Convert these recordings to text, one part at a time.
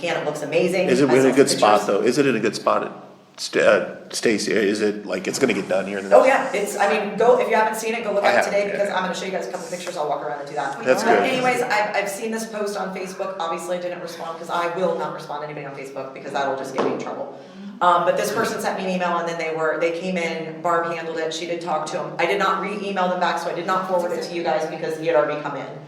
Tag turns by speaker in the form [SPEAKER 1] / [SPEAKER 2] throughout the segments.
[SPEAKER 1] can, it looks amazing.
[SPEAKER 2] Is it
[SPEAKER 1] I saw
[SPEAKER 2] in a
[SPEAKER 1] some
[SPEAKER 2] good spot
[SPEAKER 1] pictures.
[SPEAKER 2] though? Is it in a good spot, at Sta- uh, Stacy? Is it like, it's gonna get done here in the next?
[SPEAKER 1] Oh, yeah, it's, I mean, go, if you haven't seen it, go look
[SPEAKER 2] I
[SPEAKER 1] at it
[SPEAKER 2] have,
[SPEAKER 1] today,
[SPEAKER 2] yeah.
[SPEAKER 1] because I'm gonna show you guys a couple pictures, I'll walk around and do that.
[SPEAKER 2] That's
[SPEAKER 1] But
[SPEAKER 2] good.
[SPEAKER 1] Anyways, I've, I've seen this post on Facebook, obviously I didn't respond, because I will not respond to anybody on Facebook, because that'll just get me in trouble. Um, but this person sent me an email, and then they were, they came in, Barb handled it, she did talk to them, I did not re-email them back, so I did not forward it to you guys, because he had already come in.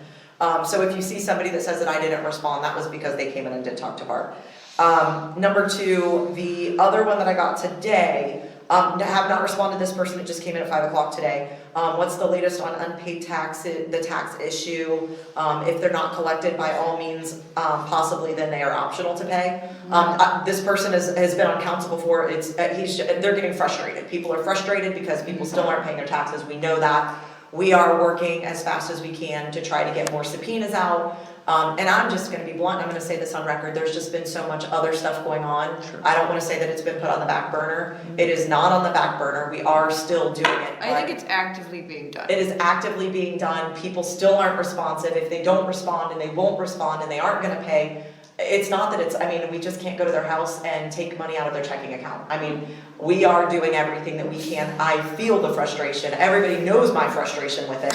[SPEAKER 1] Um, so if you see somebody that says that I didn't respond, that was because they came in and did talk to Barb. Um, number two, the other one that I got today, um, I have not responded to this person, it just came in at five o'clock today. Um, what's the latest on unpaid tax, the tax issue? Um, if they're not collected, by all means, um, possibly then they are optional to pay. Um, I- this person has, has been on council before, it's, uh, he's, they're getting frustrated, people are frustrated because people still aren't paying their taxes, we know that. We are working as fast as we can to try to get more subpoenas out. Um, and I'm just gonna be blunt, I'm gonna say this on record, there's just been so much other stuff going on. I don't wanna say that it's been put on the back burner, it is not on the back burner, we are still doing it.
[SPEAKER 3] Mm-hmm. I think it's actively being done.
[SPEAKER 1] It is actively being done, people still aren't responsive, if they don't respond and they won't respond and they aren't gonna pay, it's not that it's, I mean, we just can't go to their house and take money out of their checking account. I mean, we are doing everything that we can, I feel the frustration, everybody knows my frustration with it.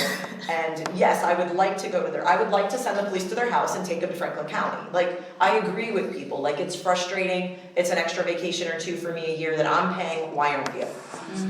[SPEAKER 1] And yes, I would like to go to their, I would like to send the police to their house and take them to Franklin County. Like, I agree with people, like, it's frustrating, it's an extra vacation or two for me a year that I'm paying, why aren't you?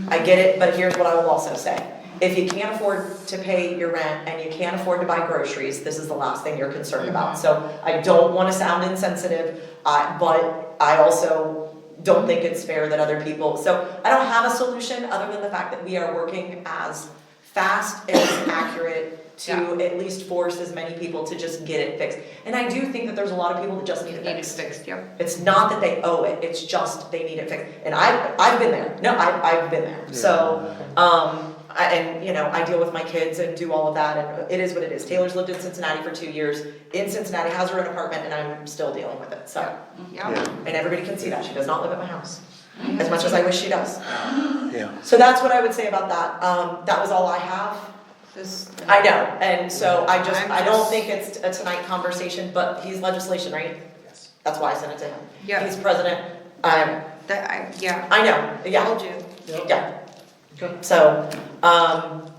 [SPEAKER 1] I get it, but here's what I will also say. If you can't afford to pay your rent and you can't afford to buy groceries, this is the last thing you're concerned about. So I don't wanna sound insensitive, I, but I also don't think it's fair that other people, so I don't have a solution other than the fact that we are working as fast and as accurate to at least force as many people to just get it fixed. And I do think that there's a lot of people that just need it
[SPEAKER 3] It
[SPEAKER 1] fixed.
[SPEAKER 3] needs fixed, yep.
[SPEAKER 1] It's not that they owe it, it's just they need it fixed. And I, I've been there, no, I, I've been there, so, um, I, and, you know, I deal with my kids and do all of that, and it is what it is. Taylor's lived in Cincinnati for two years, in Cincinnati, has her own apartment, and I'm still dealing with it, so.
[SPEAKER 3] Yeah.
[SPEAKER 1] And everybody can see that, she does not live at my house, as much as I wish she does.
[SPEAKER 2] Yeah.
[SPEAKER 1] So that's what I would say about that, um, that was all I have.
[SPEAKER 3] This.
[SPEAKER 1] I know, and so I just,
[SPEAKER 3] I'm
[SPEAKER 1] I don't
[SPEAKER 3] just-
[SPEAKER 1] think it's a tonight conversation, but he's legislation, right? Yes. That's why I sent it to him.
[SPEAKER 3] Yeah.
[SPEAKER 1] He's president, I'm,
[SPEAKER 3] That, I, yeah.
[SPEAKER 1] I know, yeah,
[SPEAKER 3] Told you.
[SPEAKER 1] yeah. So, um,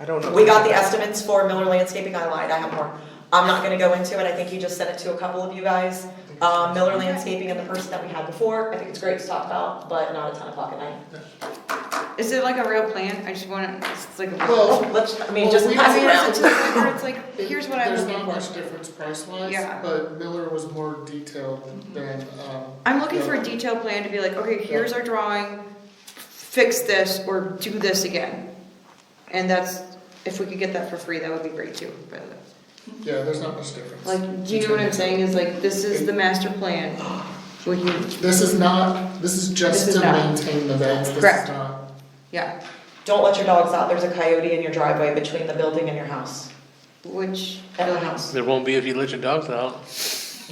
[SPEAKER 4] I don't know.
[SPEAKER 1] we got the estimates for Miller Landscaping, I lied, I have more. I'm not gonna go into it, I think he just sent it to a couple of you guys. Um, Miller Landscaping and the person that we had before, I think it's great to talk about, but not at ten o'clock at night.
[SPEAKER 3] Is it like a real plan? I just wanna, it's like a.
[SPEAKER 5] Well,
[SPEAKER 1] Let's, I mean,
[SPEAKER 5] Well,
[SPEAKER 1] just
[SPEAKER 5] we-
[SPEAKER 1] pass it
[SPEAKER 5] we-
[SPEAKER 1] around.
[SPEAKER 3] It's like, where it's like, here's what I was.
[SPEAKER 5] There's not much difference price
[SPEAKER 3] Yeah. Mm-hmm.
[SPEAKER 5] wise, but Miller was more detailed than, um.
[SPEAKER 3] I'm looking for a
[SPEAKER 5] Miller.
[SPEAKER 3] detailed plan to be like, okay, here's our drawing, fix this or do this again. And that's, if we could get that for free, that would be great too, but
[SPEAKER 5] Yeah, there's not much difference.
[SPEAKER 3] like, do you know what I'm saying? Is like, this is the master plan. Would you,
[SPEAKER 5] This is not, this is
[SPEAKER 3] This
[SPEAKER 5] just
[SPEAKER 3] is
[SPEAKER 5] to
[SPEAKER 3] not.
[SPEAKER 5] maintain the vets, this
[SPEAKER 3] Correct.
[SPEAKER 5] is not,
[SPEAKER 3] yeah,
[SPEAKER 1] Don't let your dogs out, there's a coyote in your driveway between the building and your house,
[SPEAKER 3] which,
[SPEAKER 1] at the house.
[SPEAKER 6] There won't be if you let your dogs out.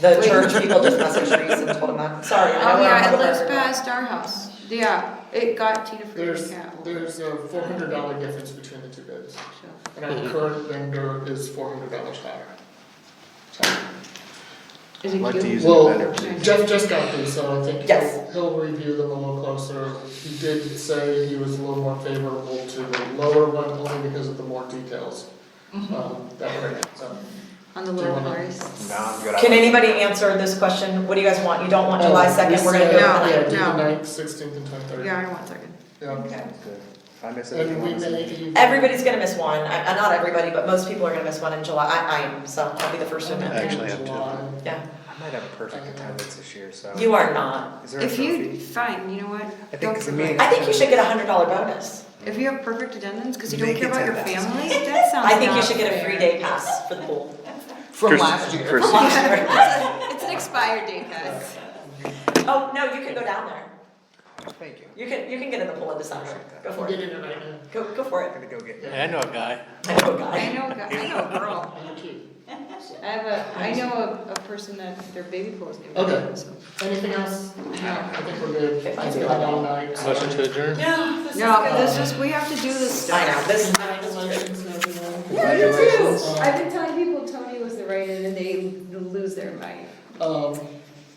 [SPEAKER 1] The church people just messaged Reese and told him that, sorry, I know
[SPEAKER 3] oh
[SPEAKER 1] we're on
[SPEAKER 3] yeah,
[SPEAKER 1] the
[SPEAKER 3] it lives
[SPEAKER 1] record, but-
[SPEAKER 3] past our house. Yeah, it got Tina for
[SPEAKER 5] there's,
[SPEAKER 3] cat.
[SPEAKER 5] there's a four hundred dollar difference between the two bids.
[SPEAKER 3] So.
[SPEAKER 5] And
[SPEAKER 4] Mm-hmm.
[SPEAKER 5] our current vendor is four hundred dollars higher.
[SPEAKER 3] Is
[SPEAKER 4] I'd
[SPEAKER 3] it
[SPEAKER 4] like to
[SPEAKER 3] cute?
[SPEAKER 4] use it
[SPEAKER 5] Well-
[SPEAKER 4] better.
[SPEAKER 5] Jeff just got these, so I think he'll,
[SPEAKER 1] Yes.
[SPEAKER 5] he'll review them a little closer. He did say he was a little more favorable to the lower one, only because of the more details,
[SPEAKER 1] Mm-hmm.
[SPEAKER 5] um, that were in it, so.
[SPEAKER 3] on the
[SPEAKER 5] Do you
[SPEAKER 3] little
[SPEAKER 5] wanna-
[SPEAKER 3] cars?
[SPEAKER 4] No, I'm good. I
[SPEAKER 1] Can
[SPEAKER 4] like-
[SPEAKER 1] anybody answer this question? What do you guys want? You don't want Oh, July second, we're gonna do it
[SPEAKER 3] No,
[SPEAKER 1] tonight.
[SPEAKER 5] Yeah, do the
[SPEAKER 3] no.
[SPEAKER 5] ninth, sixteenth and twenty-third.
[SPEAKER 3] Yeah, I don't want a second.
[SPEAKER 5] Yeah.
[SPEAKER 1] Okay.
[SPEAKER 4] Good. If I miss anything,
[SPEAKER 5] And
[SPEAKER 4] I'll
[SPEAKER 5] we
[SPEAKER 4] miss
[SPEAKER 5] may
[SPEAKER 4] it.
[SPEAKER 5] even.
[SPEAKER 1] Everybody's gonna miss one, I, I- not everybody, but most people are gonna miss one in July, I, I am, so I'll be the first to admit,
[SPEAKER 2] Actually, I have two.
[SPEAKER 5] July.
[SPEAKER 1] yeah.
[SPEAKER 4] I might have a perfect attendance this year, so.
[SPEAKER 1] You are not.
[SPEAKER 4] Is there a
[SPEAKER 3] If you,
[SPEAKER 4] trophy?
[SPEAKER 3] fine, you know what?
[SPEAKER 4] think
[SPEAKER 3] Don't
[SPEAKER 4] it's a
[SPEAKER 3] give
[SPEAKER 4] meeting.
[SPEAKER 1] I think you should get a hundred dollar bonus.
[SPEAKER 3] If you have perfect attendance, because you don't
[SPEAKER 4] Make
[SPEAKER 3] care
[SPEAKER 4] it
[SPEAKER 3] about your
[SPEAKER 4] 10,000.
[SPEAKER 3] family, that sounds
[SPEAKER 1] I think you
[SPEAKER 3] not
[SPEAKER 1] should get a free
[SPEAKER 3] fair.
[SPEAKER 1] day pass for the pool.
[SPEAKER 2] Chris- Chris-
[SPEAKER 3] It's an expired date, guys.
[SPEAKER 1] Oh, no, you can go down there.
[SPEAKER 4] Thank you.
[SPEAKER 1] You can, you can get in the pool in December. Go for
[SPEAKER 5] Get
[SPEAKER 1] it.
[SPEAKER 5] in it right now.
[SPEAKER 1] Go, go for
[SPEAKER 4] I'm
[SPEAKER 1] it.
[SPEAKER 4] gonna go get.
[SPEAKER 6] Hey, I know a guy.
[SPEAKER 1] I know, a
[SPEAKER 3] I
[SPEAKER 1] guy.
[SPEAKER 3] know, a guy- I know a girl.
[SPEAKER 5] Thank you.
[SPEAKER 3] I have a, I know a, a person that their baby clothes. named
[SPEAKER 5] Okay.
[SPEAKER 3] after, so.
[SPEAKER 5] Anything else?
[SPEAKER 3] No.
[SPEAKER 5] I think we're good.
[SPEAKER 1] Okay,
[SPEAKER 5] It's
[SPEAKER 1] fine.
[SPEAKER 5] been a long night.
[SPEAKER 6] Motion to adjourn.
[SPEAKER 1] No, this is
[SPEAKER 3] No,
[SPEAKER 1] good.
[SPEAKER 3] this is, we have to do this
[SPEAKER 1] I
[SPEAKER 3] stuff.
[SPEAKER 1] know, this is.
[SPEAKER 5] Congratulations, everyone.
[SPEAKER 7] Yeah, you too.
[SPEAKER 5] Congratulations.
[SPEAKER 7] I've been telling people Tony was the writer and they lose their mind.
[SPEAKER 5] Um,